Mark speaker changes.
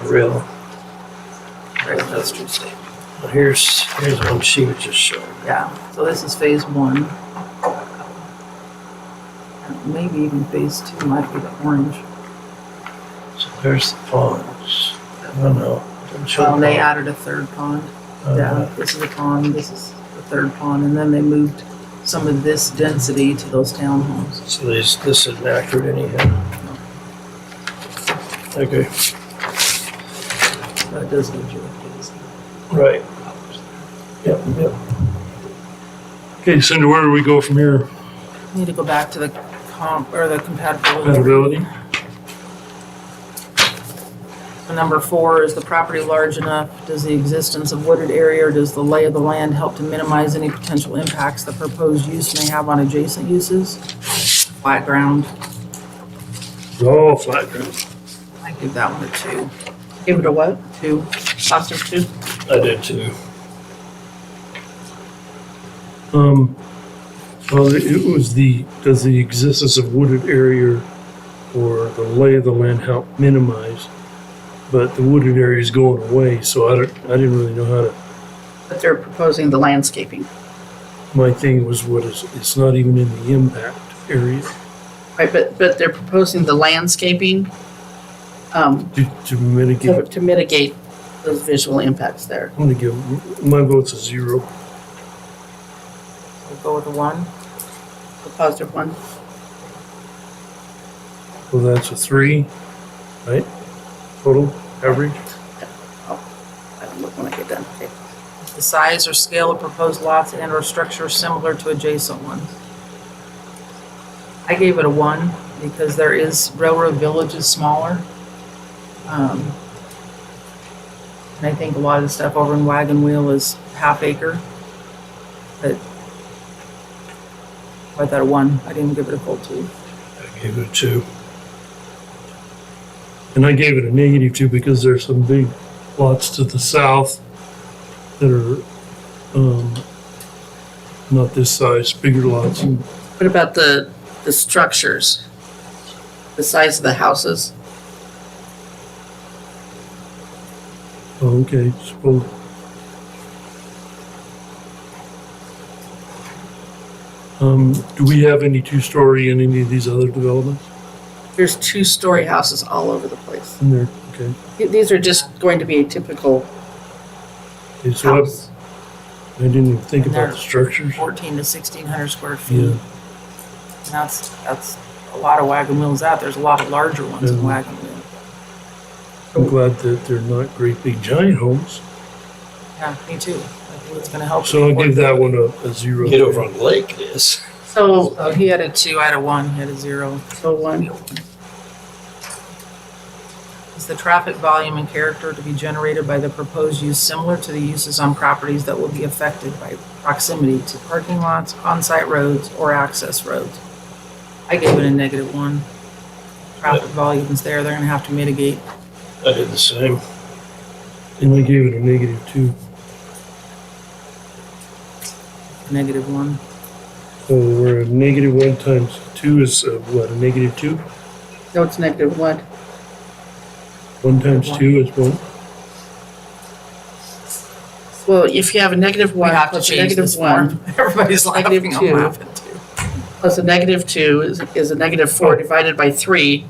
Speaker 1: real, real industrial state. But here's, here's one she was just showing.
Speaker 2: Yeah, so this is phase one. And Maybe even phase two might be the orange.
Speaker 1: So there's the ponds. I don't know. Didn't show
Speaker 2: Well, they
Speaker 1: the
Speaker 2: added a third pond.
Speaker 1: pond.
Speaker 2: Yeah,
Speaker 1: Uh,
Speaker 2: this is a pond, this is the third pond, and then they moved some of this density to those townhomes.
Speaker 1: So this, this isn't accurate anyhow. Okay,
Speaker 2: So it does give you a phase.
Speaker 1: right. Yep, yep.
Speaker 3: Okay, Cinder, where do we go from here?
Speaker 2: Need to go back to the comp, or the compatibility.
Speaker 3: Compatibility?
Speaker 2: And Number four, is the property large enough? Does the existence of wooded area or does the lay of the land help to minimize any potential impacts the proposed use may have on adjacent uses? Flat ground,
Speaker 3: Oh, flat ground.
Speaker 2: I give that one a two,
Speaker 4: Give it a what?
Speaker 2: two. Foster two?
Speaker 1: I did too.
Speaker 3: Um, well, it was the, does the existence of wooded area or the lay of the land help minimize? But the wooded area is going away, so I don't, I didn't really know how to,
Speaker 4: But they're proposing the landscaping.
Speaker 3: my thing was what is, it's not even in the impact area
Speaker 4: Right, but, but they're proposing the landscaping um,
Speaker 3: to, to
Speaker 4: to
Speaker 3: mitigate.
Speaker 4: to mitigate those visual impacts there.
Speaker 3: I'm gonna give, my vote's a zero.
Speaker 2: We'll Go with a one.
Speaker 4: The positive one.
Speaker 3: Well, that's a three, right? Total average?
Speaker 4: I don't look when I get done. Okay.
Speaker 2: The size or scale of proposed lots and or structures similar to adjacent ones. I gave it a one because there is railroad village is smaller. Um, And I think a lot of the stuff over in Wagon Wheel is half acre. But I thought a one, I didn't give it a full two.
Speaker 3: I gave it a two. And I gave it a negative two because there's some big lots to the south that are, um, not this size, bigger lots.
Speaker 4: What about the, the structures? The size of the houses?
Speaker 3: Oh, okay, so. Um, do we have any two-story in any of these other developments
Speaker 4: There's two-story houses all over the place.
Speaker 3: in there? Okay.
Speaker 4: Th- These are just going to be a typical
Speaker 3: Okay, so I,
Speaker 4: house.
Speaker 3: I didn't even think about the structures.
Speaker 2: Fourteen to sixteen hundred square feet.
Speaker 3: Yeah.
Speaker 2: And that's, that's a lot of wagon wheels out. There's a lot of larger ones in
Speaker 3: Mhm.
Speaker 2: wagon wheel.
Speaker 3: I'm glad that they're not great big giant homes.
Speaker 2: Yeah, me too. I think it's gonna help.
Speaker 3: So I'll give that one a, a zero.
Speaker 1: Get over on the lake, Yes.
Speaker 4: So,
Speaker 2: Oh, he had a two, I had a one, he had a zero.
Speaker 4: so one,
Speaker 2: Is the traffic volume and character to be generated by the proposed use similar to the uses on properties that will be affected by proximity to parking lots, on-site roads, or access roads? I gave it a negative one. Traffic volume's there, they're gonna have to mitigate.
Speaker 1: I did the same.
Speaker 3: And I gave it a negative two.
Speaker 2: Negative one.
Speaker 3: So we're a negative one times two is uh what, a negative two?
Speaker 4: no, it's negative one.
Speaker 3: One times
Speaker 2: One.
Speaker 3: two is one.
Speaker 4: Well, if you have a negative
Speaker 2: We
Speaker 4: one
Speaker 2: have to
Speaker 4: plus a
Speaker 2: change
Speaker 4: negative
Speaker 2: this
Speaker 4: one
Speaker 2: form. Everybody's laughing,
Speaker 4: Negative
Speaker 2: I'm
Speaker 4: two.
Speaker 2: laughing too. Oh.
Speaker 4: plus a negative two is, is a negative four divided by three